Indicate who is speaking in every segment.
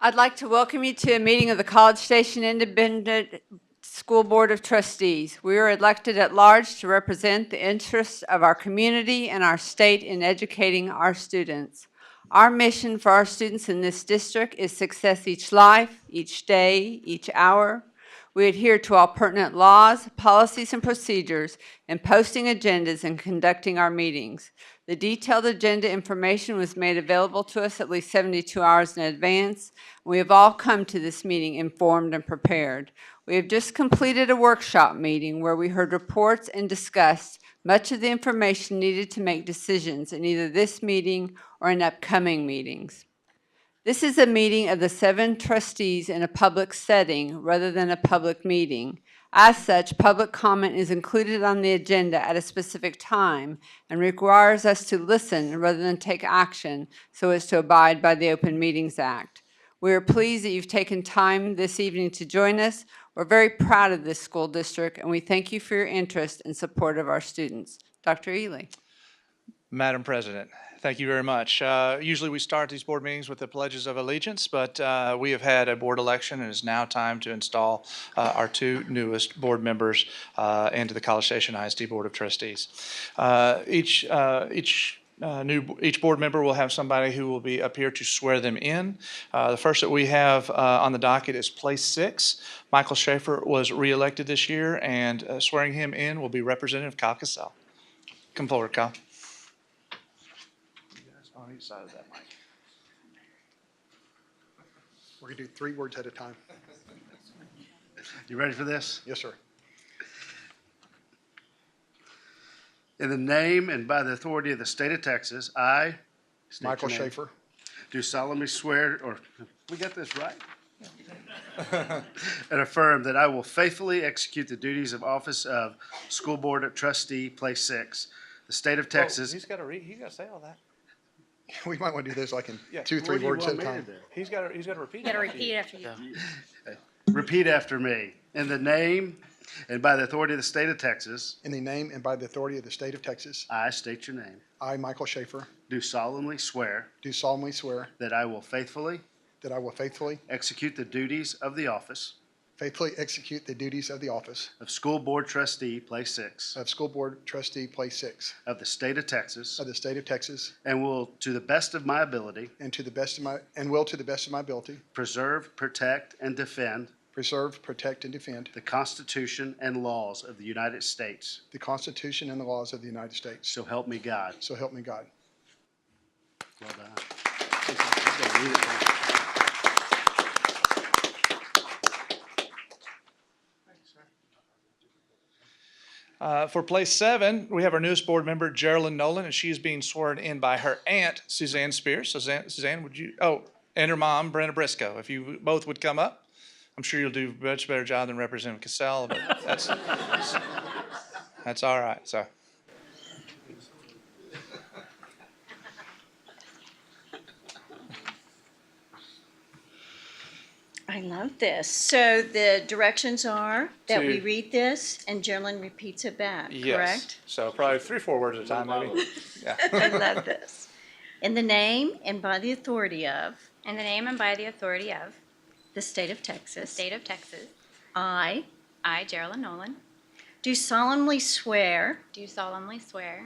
Speaker 1: I'd like to welcome you to a meeting of the College Station Independent School Board of Trustees. We are elected at large to represent the interests of our community and our state in educating our students. Our mission for our students in this district is success each life, each day, each hour. We adhere to all pertinent laws, policies, and procedures in posting agendas and conducting our meetings. The detailed agenda information was made available to us at least 72 hours in advance. We have all come to this meeting informed and prepared. We have just completed a workshop meeting where we heard reports and discussed much of the information needed to make decisions in either this meeting or in upcoming meetings. This is a meeting of the seven trustees in a public setting rather than a public meeting. As such, public comment is included on the agenda at a specific time and requires us to listen rather than take action so as to abide by the Open Meetings Act. We are pleased that you've taken time this evening to join us. We're very proud of this school district, and we thank you for your interest and support of our students. Dr. Ely?
Speaker 2: Madam President, thank you very much. Uh, Usually, we start these board meetings with the pledges of allegiance, but uh, we have had a board election, and it's now time to install uh, our two newest board members uh, into the College Station ISD Board of Trustees. Uh, Each, uh, each uh, new, each board member will have somebody who will be up here to swear them in. Uh, The first that we have uh, on the docket is place six. Michael Schaefer was reelected this year, and uh, swearing him in will be Representative Kyle Cassell. Come forward, Kyle. On each side of that mic.
Speaker 3: We're going to do three words at a time.
Speaker 4: You ready for this?
Speaker 3: Yes, sir.
Speaker 4: In the name and by the authority of the state of Texas, I. state your
Speaker 3: Michael
Speaker 4: name,
Speaker 3: Schaefer,
Speaker 4: Do solemnly swear, or, we got this right? And affirm that I will faithfully execute the duties of office of School Board of Trustee, Place Six, the state
Speaker 3: Oh,
Speaker 4: of
Speaker 2: Oh,
Speaker 4: Texas.
Speaker 2: He's got to read, he's got to say all that.
Speaker 3: we might want to do this like in
Speaker 2: Yeah.
Speaker 3: two,
Speaker 4: What
Speaker 3: three
Speaker 4: do you
Speaker 3: words at
Speaker 4: want
Speaker 3: a
Speaker 4: me to
Speaker 3: time.
Speaker 4: do?
Speaker 2: He's got to, he's got to repeat.
Speaker 5: You gotta
Speaker 2: it after you.
Speaker 5: repeat after you.
Speaker 4: Repeat after me. In the name and by the authority of the state of Texas,
Speaker 3: In the name and by the authority of the state of Texas,
Speaker 4: I state your name.
Speaker 3: I, Michael Schaefer,
Speaker 4: Do solemnly swear
Speaker 3: do solemnly swear
Speaker 4: that I will faithfully
Speaker 3: that I will faithfully,
Speaker 4: execute the duties of the office
Speaker 3: faithfully execute the duties of the office
Speaker 4: of School Board Trustee, Place Six
Speaker 3: of School Board Trustee, Place Six
Speaker 4: of the state of Texas
Speaker 3: of the state of Texas,
Speaker 4: and will, to the best of my ability,
Speaker 3: and to the best of my, and will to the best of my ability,
Speaker 4: preserve, protect, and defend
Speaker 3: preserve, protect, and defend
Speaker 4: the Constitution and laws of the United States.
Speaker 3: the Constitution and the laws of the United States.
Speaker 4: So help me God.
Speaker 3: So help me God.
Speaker 4: Well done.
Speaker 2: Uh, For place seven, we have our newest board member, Geraldine Nolan, and she is being sworn in by her aunt, Suzanne Spears. Suzanne, Suzanne, would you, oh, and her mom, Brenda Briscoe. If you both would come up, I'm sure you'll do a much better job than Representative Cassell, but that's, that's all right, so.
Speaker 5: I love this. So the directions are that we
Speaker 2: To-
Speaker 5: read this and Gerlin repeats it back,
Speaker 2: yes.
Speaker 5: correct?
Speaker 2: So probably three, four words at a time, maybe.
Speaker 5: I love this. In the name and by the authority of
Speaker 6: In the name and by the authority of
Speaker 5: the state of
Speaker 6: the
Speaker 5: Texas,
Speaker 6: state of Texas,
Speaker 5: I
Speaker 6: I, Geraldine Nolan,
Speaker 5: do solemnly swear
Speaker 6: do solemnly swear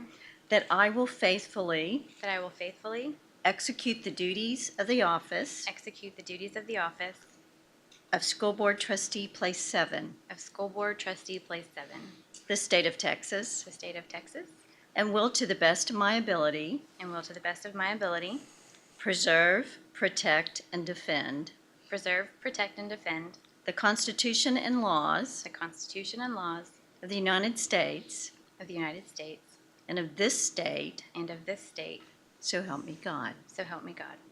Speaker 5: that I will faithfully
Speaker 6: that I will faithfully
Speaker 5: execute the duties of the office
Speaker 6: execute the duties of the office
Speaker 5: of School Board Trustee Place Seven,
Speaker 6: of School Board Trustee Place Seven,
Speaker 5: the state of Texas,
Speaker 6: the state of Texas,
Speaker 5: and will to the best of my ability
Speaker 6: and will to the best of my ability
Speaker 5: preserve, protect, and defend
Speaker 6: preserve, protect, and defend
Speaker 5: the Constitution and laws
Speaker 6: the Constitution and laws
Speaker 5: of the United States
Speaker 6: of the United States
Speaker 5: and of this state,
Speaker 6: and of this state,
Speaker 5: so help me God.
Speaker 6: so help me God.